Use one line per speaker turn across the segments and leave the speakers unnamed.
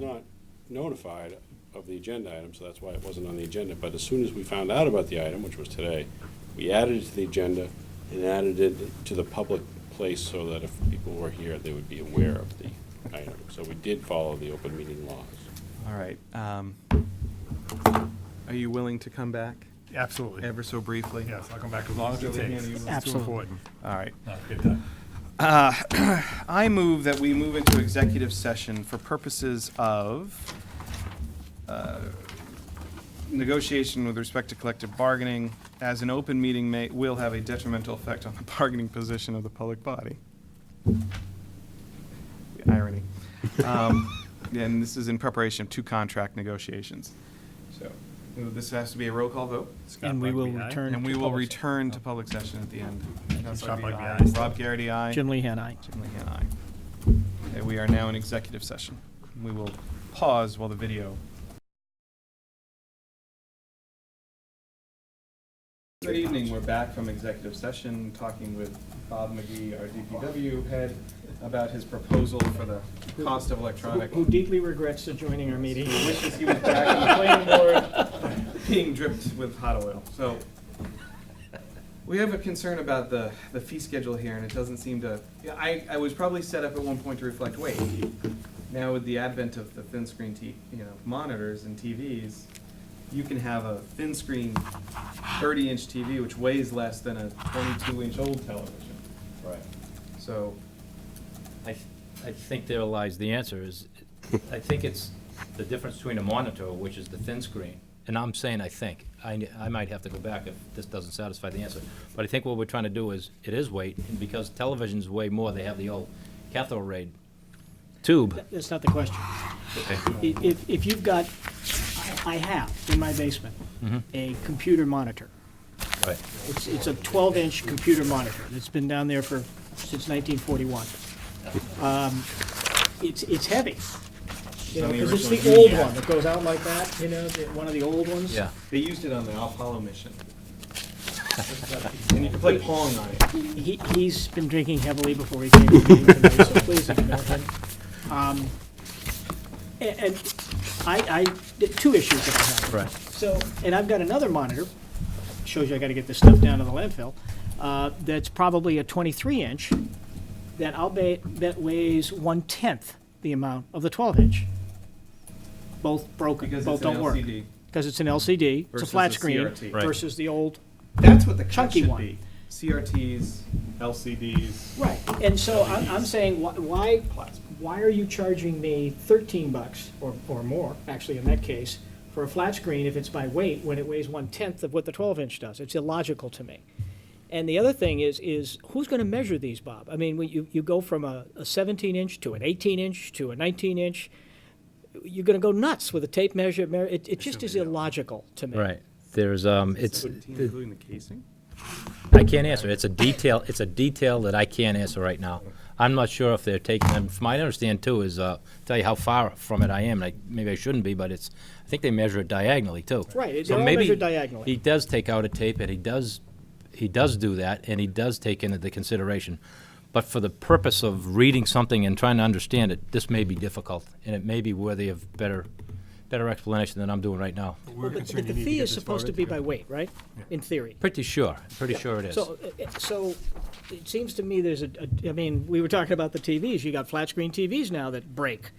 not notified of the agenda item, so that's why it wasn't on the agenda. But as soon as we found out about the item, which was today, we added it to the agenda and added it to the public place so that if people were here, they would be aware of the item. So we did follow the open meeting laws.
All right. um, Are you willing to come back
Absolutely.
ever so briefly?
Yes, I'll come back as long as it takes. It's too
Absolutely.
important.
All right.
No, good time.
Uh, I move that we move into executive session for purposes of uh, negotiation with respect to collective bargaining, as an open meeting may, will have a detrimental effect on the bargaining position of the public body. Irony. Um, And this is in preparation of two contract negotiations. So this has to be a roll call vote.
Scott
And we will
Buckby, aye.
return.
And
to
we will
public-
return to public session at the end. Counselor
Sean Buckby,
Bebe,
aye.
Rob Garrity, aye.
Jim Lehan, aye.
Jim Lehan, aye. Okay, uh, we are now in executive session. We will pause while the video. Good evening, we're back from executive session, talking with Bob McGee, our DPW head, about his proposal for the cost of electronic.
Who deeply regrets joining our meeting.
Wishes he was back on the planning board, being dripped with hot oil, so. We have a concern about the, the fee schedule here, and it doesn't seem to, yeah, I, I was probably set up at one point to reflect weight. Now with the advent of the thin screen T, you know, monitors and TVs, you can have a thin screen thirty inch TV which weighs less than a twenty-two inch old television. Right. So,
I, th- I think there lies the answer is, I think it's the difference between a monitor, which is the thin screen, and I'm saying I think, I, n- I might have to go back if this doesn't satisfy the answer. But I think what we're trying to do is, it is weight, and because televisions weigh more, they have the old cathode ray tube.
That's not the question. I- If, if you've got, I I have in my basement, a computer monitor.
Right.
It's, it's a 12-inch computer monitor that's been down there for, since 1941. Um, It's, it's heavy. You know,
On the
'cause it's the
original
old
Union.
one that goes out like that, you know, the- one of the old ones.
Yeah,
they used it on the Apollo mission. And you can play Pong on it.
He, he's been drinking heavily before he came to the meeting tonight, so please ignore him. Um, a- And I, I, the two issues that I have.
right.
So, and I've got another monitor, shows you I gotta get this stuff down to the landfill, uh, that's probably a twenty-three inch, that I'll bet, that weighs one-tenth the amount of the twelve inch. Both broken,
Because
both
it's an
don't work.
LCD.
Because it's an LCD, it's a
Versus
flat
the
screen
CRT. Right.
versus the old
That's what the cut
Chunky
should
one.
be. CRTs, LCDs.
Right, and so I'm, I'm saying, wh- why,
Plasma.
why are you charging me thirteen bucks or, or more, actually in that case, for a flat screen if it's by weight, when it weighs one-tenth of what the twelve-inch does? It's illogical to me. And the other thing is, is who's gonna measure these, Bob? I mean, when you, you go from a seventeen-inch to an eighteen-inch to a nineteen-inch, you're gonna go nuts with a tape measure, mer- it, it just is illogical to me.
Right, there's, um, it's,
Including the casing?
I can't answer. It's a detail, it's a detail that I can't answer right now. I'm not sure if they're taking them, from my understanding too is, uh, tell you how far from it I am, like, maybe I shouldn't be, but it's, I think they measure it diagonally too.
Right, it-
So
they're all
maybe
measured diagonally.
He does take out a tape and he does, he does do that and he does take into the consideration. But for the purpose of reading something and trying to understand it, this may be difficult and it may be worthy of better, better explanation than I'm doing right now.
But- But the fee is supposed to be by weight, right? In theory.
Pretty sure, pretty sure it is.
So, uh, uh, so it seems to me there's a, a- I mean, we were talking about the TVs. You got flat screen TVs now that break,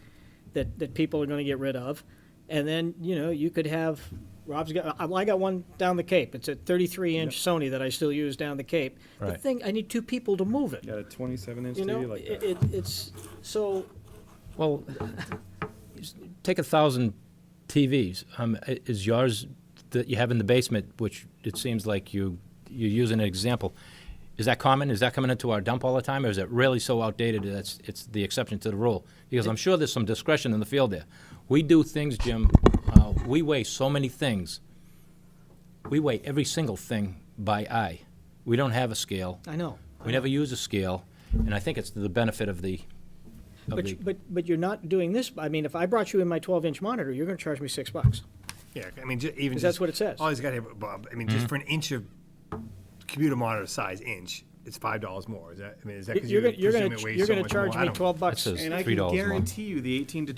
that, that people are gonna get rid of. And then, you know, you could have, Rob's got, I- well, I got one down the Cape. It's a thirty-three inch Sony that I still use down the Cape. The
Right.
thing, I need two people to move it,
Got a twenty-seven inch
you
TV
know?
like
It,
that.
it- it's, so,
Well, s- take a thousand TVs. Um, i- is yours that you have in the basement, which it seems like you you're using an example. Is that common? Is that coming into our dump all the time, or is it really so outdated that it's, it's the exception to the rule? Because I'm sure there's some discretion in the field there. We do things, Jim. Uh, we weigh so many things. We weigh every single thing by eye. We don't have a scale.
I know.
We never use a scale, and I think it's to the benefit of the. Of
But,
the
you- but, but you're not doing this, I mean, if I brought you in my twelve inch monitor, you're gonna charge me six bucks.
Yeah, I mean, ju- even.
'Cause that's
just-
what it says.
All he's got here, Bob, I mean, just for an inch of computer monitor size inch, it's five dollars more. Is that, I mean, is that because you
You're gonna, you're
presume
gonna,
it weighs
you're
so
gonna
much more?
charge
I
me
don't-
twelve bucks.
says-
And I
$3
can
more.
guarantee you the eighteen to